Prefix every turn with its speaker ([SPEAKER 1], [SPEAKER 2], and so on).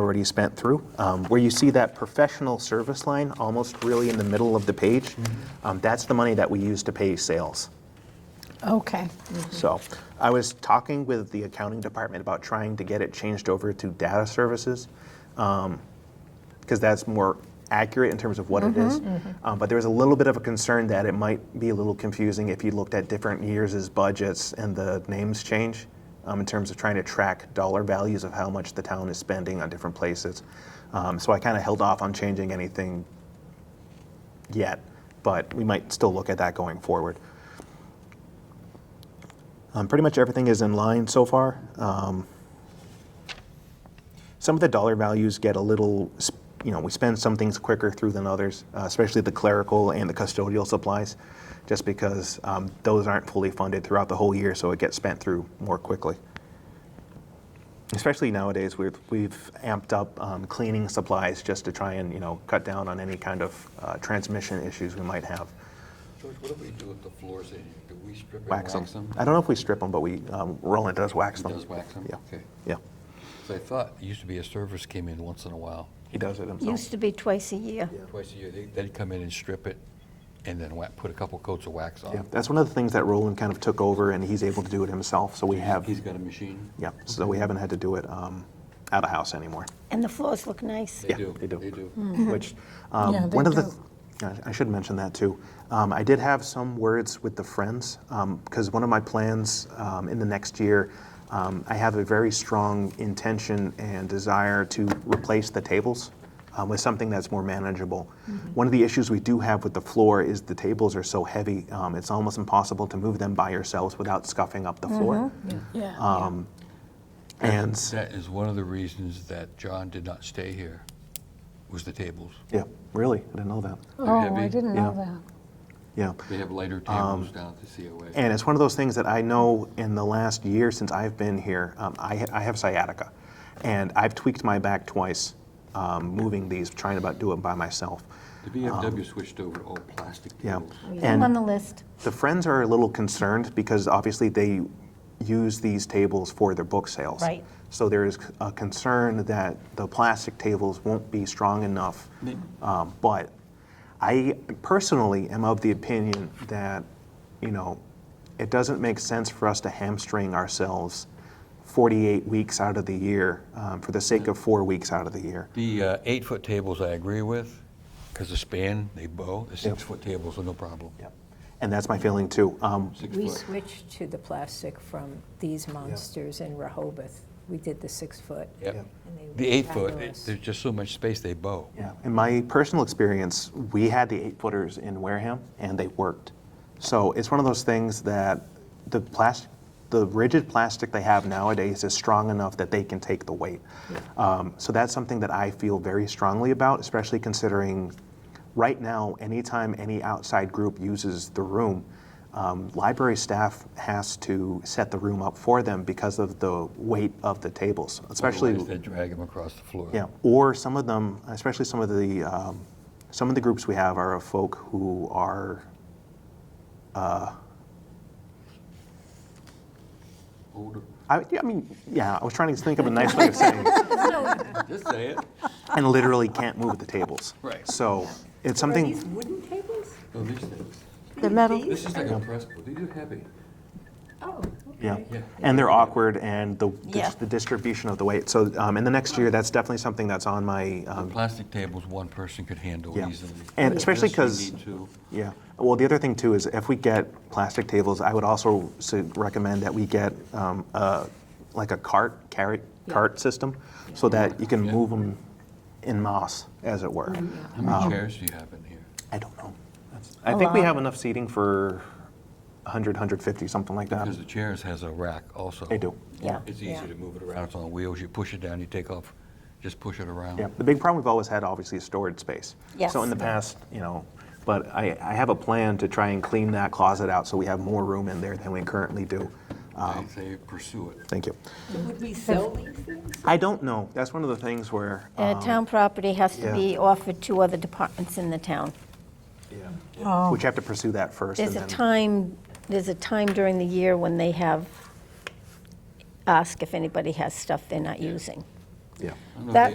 [SPEAKER 1] already spent through. Um, Where you see that professional service line, almost really in the middle of the page, um, that's the money that we use to pay sales.
[SPEAKER 2] Okay.
[SPEAKER 1] So I was talking with the accounting department about trying to get it changed over to data services because that's more accurate in terms of what it is. Um, but there was a little bit of a concern that it might be a little confusing if you looked at different years' as budgets and the names change um, in terms of trying to track dollar values of how much the town is spending on different places. Um, so I kind of held off on changing anything yet, but we might still look at that going forward. Um, pretty much everything is in line so far. Um, some of the dollar values get a little, sp- you know, we spend some things quicker through than others, uh, especially the clerical and the custodial supplies, just because um, those aren't fully funded throughout the whole year, so it gets spent through more quickly. Especially nowadays, we've, we've amped up um, cleaning supplies just to try and, you know, cut down on any kind of uh, transmission issues we might have.
[SPEAKER 3] George, what do we do with the floors in here? Do we strip and
[SPEAKER 1] Wax
[SPEAKER 3] wax
[SPEAKER 1] them.
[SPEAKER 3] them?
[SPEAKER 1] I don't know if we strip them, but we, um, Roland does wax
[SPEAKER 3] He
[SPEAKER 1] them.
[SPEAKER 3] does wax them?
[SPEAKER 1] Yeah.
[SPEAKER 3] Okay.
[SPEAKER 1] Yeah.
[SPEAKER 3] So I thought, it used to be a service came in once in a while,
[SPEAKER 1] He does it himself.
[SPEAKER 4] Used to be twice a year.
[SPEAKER 3] twice a year. They- They'd come in and strip it and then wa- put a couple coats of wax on
[SPEAKER 1] Yeah,
[SPEAKER 3] it.
[SPEAKER 1] that's one of the things that Roland kind of took over, and he's able to do it himself. So we have,
[SPEAKER 3] He's got a machine?
[SPEAKER 1] yeah, so we haven't had to do it um, out of house anymore.
[SPEAKER 4] And the floors look nice.
[SPEAKER 3] They
[SPEAKER 1] Yeah,
[SPEAKER 3] do.
[SPEAKER 1] they do.
[SPEAKER 3] They do.
[SPEAKER 1] Which um,
[SPEAKER 2] Hmm. Yeah, they
[SPEAKER 1] one of the,
[SPEAKER 2] do.
[SPEAKER 1] I- I should mention that too. Um, I did have some words with the friends because one of my plans um, in the next year, um, I have a very strong intention and desire to replace the tables. Um, with something that's more manageable.
[SPEAKER 2] Mm-hmm.
[SPEAKER 1] One of the issues we do have with the floor is the tables are so heavy, um, it's almost impossible to move them by yourselves without scuffing up the floor.
[SPEAKER 2] Mm-hmm. Yeah.
[SPEAKER 1] Um, And
[SPEAKER 3] That is one of the reasons that John did not stay here, was the tables.
[SPEAKER 1] yeah, really, I didn't know that.
[SPEAKER 2] Oh, I
[SPEAKER 3] heavy.
[SPEAKER 2] didn't
[SPEAKER 1] Yeah.
[SPEAKER 2] know that.
[SPEAKER 1] Yeah.
[SPEAKER 3] They have lighter tables down at the COA.
[SPEAKER 1] Um, And it's one of those things that I know in the last year since I've been here, um, I, ha- I have sciatica. And I've tweaked my back twice um, moving these, trying to about do it by myself.
[SPEAKER 3] The BFW switched over to all plastic
[SPEAKER 1] um, Yeah.
[SPEAKER 3] tables.
[SPEAKER 4] I'm on
[SPEAKER 1] And
[SPEAKER 4] the list.
[SPEAKER 1] the friends are a little concerned because obviously they use these tables for their book sales.
[SPEAKER 4] Right.
[SPEAKER 1] So there is a concern that the plastic tables won't be strong enough.
[SPEAKER 3] May-
[SPEAKER 1] Um, but I personally am of the opinion that, you know, it doesn't make sense for us to hamstring ourselves 48 weeks out of the year um, for the sake of four weeks out of the year.
[SPEAKER 3] The uh, eight-foot tables I agree with, because the span, they bow. The six-foot tables are no problem.
[SPEAKER 1] Yep. And that's my feeling too. Um,
[SPEAKER 3] Six
[SPEAKER 5] We
[SPEAKER 3] foot.
[SPEAKER 5] switched to the plastic from these monsters in Rehoboth. We did the six-foot.
[SPEAKER 3] Yep.
[SPEAKER 1] Yeah.
[SPEAKER 5] and they were
[SPEAKER 3] The eight-foot,
[SPEAKER 5] fabulous.
[SPEAKER 3] there's just so much space, they bow.
[SPEAKER 1] Yeah, in my personal experience, we had the eight footers in Wareham and they worked. So it's one of those things that the plastic, the rigid plastic they have nowadays is strong enough that they can take the weight. Um, so that's something that I feel very strongly about, especially considering right now, anytime any outside group uses the room, um, library staff has to set the room up for them because of the weight of the tables, especially.
[SPEAKER 3] Otherwise, They drag them across the floor.
[SPEAKER 1] Yeah, or some of them, especially some of the um, some of the groups we have are of folk who are
[SPEAKER 3] Older.
[SPEAKER 1] I, yeah, I mean, yeah, I was trying to think of a nice way of saying it,
[SPEAKER 3] Just say it.
[SPEAKER 1] and literally can't move the tables.
[SPEAKER 3] Right.
[SPEAKER 1] So it's
[SPEAKER 6] Are
[SPEAKER 1] something.
[SPEAKER 6] these wooden tables?
[SPEAKER 3] No, these things.
[SPEAKER 4] The metal,
[SPEAKER 3] This is like a press, board. these are heavy.
[SPEAKER 6] Oh,
[SPEAKER 1] Yeah.
[SPEAKER 6] okay.
[SPEAKER 3] Yeah.
[SPEAKER 1] And they're awkward, and the, the,
[SPEAKER 4] Yeah.
[SPEAKER 1] the distribution of the weight. So, um, in the next year, that's definitely something that's on my.
[SPEAKER 3] The
[SPEAKER 1] Um,
[SPEAKER 3] plastic tables, one person could handle
[SPEAKER 1] Yeah.
[SPEAKER 3] easily.
[SPEAKER 1] And especially
[SPEAKER 3] This you
[SPEAKER 1] 'cause-
[SPEAKER 3] need two.
[SPEAKER 1] yeah. Well, the other thing too is if we get plastic tables, I would also su- recommend that we get um, a, like a cart carry cart system, so that you can
[SPEAKER 3] Yeah.
[SPEAKER 1] move them in moss, as it were.
[SPEAKER 3] How
[SPEAKER 1] um,
[SPEAKER 3] many chairs do you have in here?
[SPEAKER 1] I don't know. That's, I think we have enough seating for 100, 150, something like that.
[SPEAKER 3] Because the chairs has a rack also.
[SPEAKER 1] um, They do.
[SPEAKER 4] Yeah.
[SPEAKER 3] It's easy to move it around, it's on wheels, you push it down, you take off, just push it around.
[SPEAKER 1] Yeah, the big problem we've always had, obviously, is storage space.
[SPEAKER 4] Yes.
[SPEAKER 1] So in the past, you know, but I, I have a plan to try and clean that closet out so we have more room in there than we currently do. Uh-huh.
[SPEAKER 3] They say pursue it.
[SPEAKER 1] Thank you.
[SPEAKER 6] Would we sell these things?
[SPEAKER 1] I don't know. That's one of the things where. um,
[SPEAKER 4] uh, town property has to
[SPEAKER 1] yeah.
[SPEAKER 4] be offered to other departments in the town.
[SPEAKER 1] Yeah.
[SPEAKER 6] Oh.
[SPEAKER 1] Would you have to pursue that first?
[SPEAKER 4] There's
[SPEAKER 1] and
[SPEAKER 4] a
[SPEAKER 1] then-
[SPEAKER 4] time, there's a time during the year when they have, ask if anybody has stuff they're not using.
[SPEAKER 1] Yeah.
[SPEAKER 3] I don't know if
[SPEAKER 4] That-
[SPEAKER 3] they